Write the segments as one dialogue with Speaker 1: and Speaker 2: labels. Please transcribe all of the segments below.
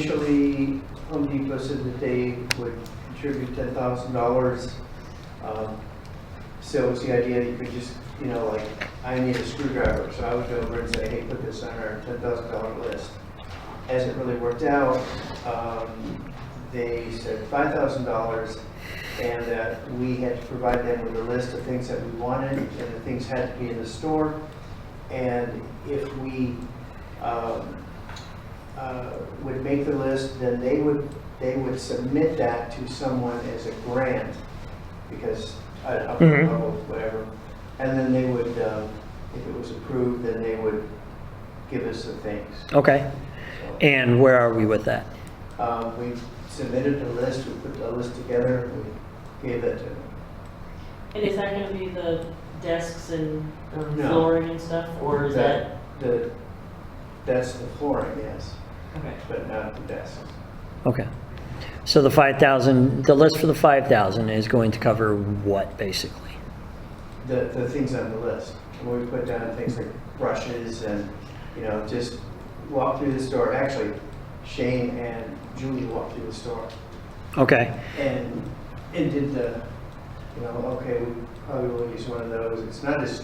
Speaker 1: Initially, Home Depot said that they would contribute ten thousand dollars. Um, So it was the idea that you could just, you know, like, I need a screwdriver, so I would go over and say, hey, put this on our ten thousand dollar list. As it really worked out, um, they said five thousand dollars, and that we had to provide them with a list of things that we wanted, and the things had to be in the store. And if we, um, uh, would make the list, then they would, they would submit that to someone as a grant, because, I I don't
Speaker 2: Mhm.
Speaker 1: know, whatever. And then they would, um, if it was approved, then they would give us the things.
Speaker 2: Okay,
Speaker 1: So,
Speaker 2: and where are we with that?
Speaker 1: um, We submitted the list, we put the list together, and we gave that to them.
Speaker 3: And is that gonna be the desks and um,
Speaker 1: No.
Speaker 3: flooring and stuff, or is that?
Speaker 1: The, that's the flooring, yes,
Speaker 3: Okay.
Speaker 1: but not the desk.
Speaker 2: Okay. So the 5,000, the list for the 5,000 is going to cover what, basically?
Speaker 1: the, the things on the list. And we put down things like brushes and, you know, just walk through the store. Actually, Shane and Julie walked through the store
Speaker 2: Okay,
Speaker 1: and, and did the, you know, okay, we probably will use one of those. It's not as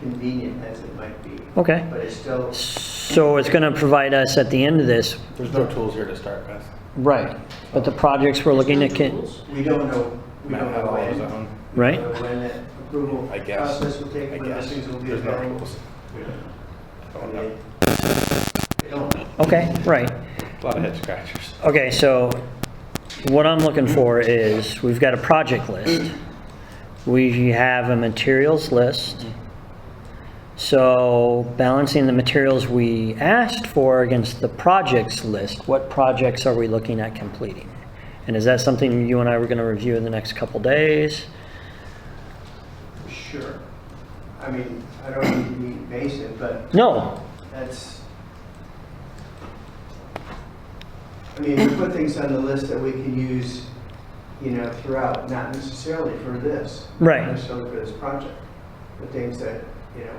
Speaker 1: convenient as it might be,
Speaker 2: okay.
Speaker 1: but it's still,
Speaker 2: So it's going to provide us at the end of this,
Speaker 4: There's no tools here to start with.
Speaker 2: right, but the projects we're looking at, can-
Speaker 1: we don't know, we
Speaker 4: Matt
Speaker 1: don't
Speaker 4: had
Speaker 1: know
Speaker 4: all of his
Speaker 1: when.
Speaker 4: own,
Speaker 1: we
Speaker 2: right?
Speaker 1: don't know When that approval
Speaker 4: I guess.
Speaker 1: process will take,
Speaker 4: I
Speaker 1: when the
Speaker 4: guess.
Speaker 1: things will be
Speaker 4: There's no
Speaker 1: available.
Speaker 4: tools.
Speaker 1: We don't know.
Speaker 4: Oh,
Speaker 1: And
Speaker 4: no.
Speaker 1: they- They don't.
Speaker 2: Okay, right.
Speaker 4: A lot of head scratchers.
Speaker 2: Okay, so what I'm looking for is, we've got a project list. We have a materials list. So balancing the materials we asked for against the projects list, what projects are we looking at completing? And is that something you and I were gonna review in the next couple days?
Speaker 1: Sure. I mean, I don't need to be invasive, but
Speaker 2: No,
Speaker 1: that's, I mean, we put things on the list that we can use, you know, throughout, not necessarily for this.
Speaker 2: Right.
Speaker 1: Not necessarily for this project, but things that, you know,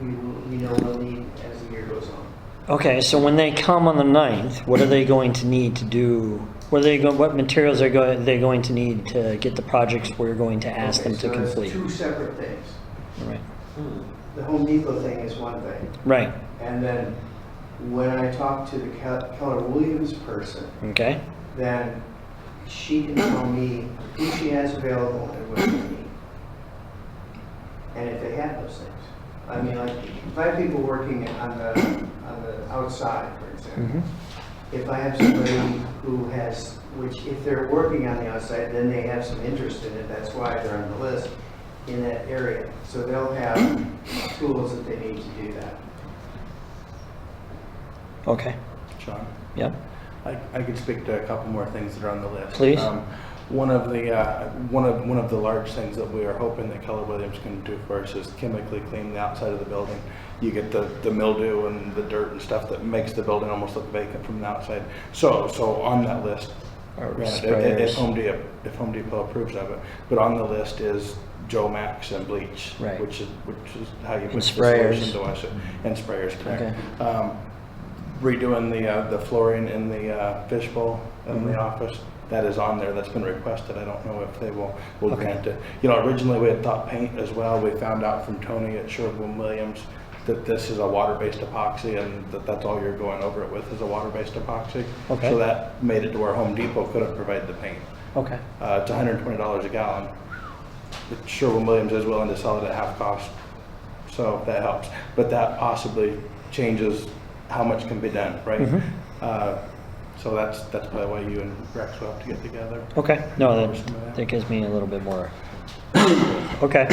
Speaker 1: we, we know we'll need as the year goes on.
Speaker 2: okay, so when they come on the 9th, what are they going to need to do? What are they, go- what materials are go- they going to need to get the projects we're going to ask them
Speaker 1: Okay,
Speaker 2: to
Speaker 1: so that's
Speaker 2: complete?
Speaker 1: two separate things.
Speaker 2: Right.
Speaker 3: Hmm.
Speaker 1: The Home Depot thing is one thing,
Speaker 2: Right,
Speaker 1: and then when I talked to the Kel- Keller Williams person,
Speaker 2: okay,
Speaker 1: then she can tell me who she has available and what they need. And if they have those things. I mean, like, if I have people working on the, on the outside, for example,
Speaker 2: Mhm.
Speaker 1: if I have somebody who has, which if they're working on the outside, then they have some interest in it, that's why they're on the list in that area. So they'll have tools that they need to do that.
Speaker 2: okay,
Speaker 4: Sean,
Speaker 2: yep,
Speaker 4: I, I could speak to a couple more things that are on the list.
Speaker 2: Please.
Speaker 4: Um, One of the, uh, one of, one of the large things that we are hoping that Keller Williams can do for us is chemically clean the outside of the building. You get the, the mildew and the dirt and stuff that makes the building almost look vacant from the outside. So, so on that list,
Speaker 2: Or
Speaker 4: granted, if,
Speaker 2: sprayers.
Speaker 4: if Home Depot, if Home Depot approves of it, but on the list is Joe Max and bleach.
Speaker 2: Right.
Speaker 4: Which is, which is how you put
Speaker 2: And
Speaker 4: the solution
Speaker 2: sprayers. Mm-hmm.
Speaker 4: to us, and sprayers, correct.
Speaker 2: Okay.
Speaker 4: Um, redoing the, uh, the flooring in the, uh, fishbowl in
Speaker 2: Mm-hmm.
Speaker 4: the office. That is on there, that's been requested, I don't know if they will, will
Speaker 2: Okay.
Speaker 4: grant it. You know, originally we had thought paint as well, we found out from Tony at Sherwin-Williams that this is a water-based epoxy and that that's all you're going over it with is a water-based epoxy.
Speaker 2: Okay.
Speaker 4: So that made it to where Home Depot couldn't provide the paint.
Speaker 2: okay,
Speaker 4: Uh, it's hundred and twenty dollars a gallon. But Sherwin-Williams is willing to sell it at half cost, so that helps. But that possibly changes how much can be done, right?
Speaker 2: Mhm.
Speaker 4: Uh, so that's, that's probably why you and Rex will have to get together.
Speaker 2: okay, no, that, that gives me a little bit more. Okay,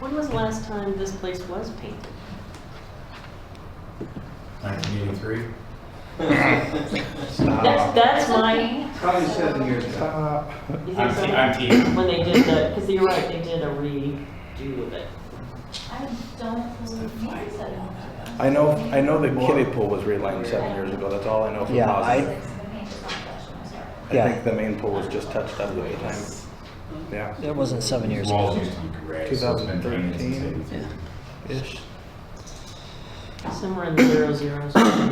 Speaker 3: When was the last time this place was painted?
Speaker 5: 1983. Uh,
Speaker 3: That's,
Speaker 2: Oh.
Speaker 3: that's my,
Speaker 1: Probably seven years ago.
Speaker 4: Uh,
Speaker 3: you think
Speaker 5: I'm,
Speaker 3: so?
Speaker 5: te- I'm team.
Speaker 3: When they did the, because you're right, they did a redo of it.
Speaker 6: I don't believe you said it.
Speaker 4: I know, I know the kiddie pool was relined seven years ago, that's all I know from
Speaker 2: Yeah,
Speaker 4: Plaza.
Speaker 6: It's the paint is not fresh when I started.
Speaker 4: I think the main pool was just touched up at the time. Yeah,
Speaker 2: that wasn't seven years
Speaker 5: Walls
Speaker 2: ago.
Speaker 5: used to be gray, so it's been painted since
Speaker 4: 2013.
Speaker 5: 83.
Speaker 4: ish.
Speaker 3: Somewhere in the zero zeros.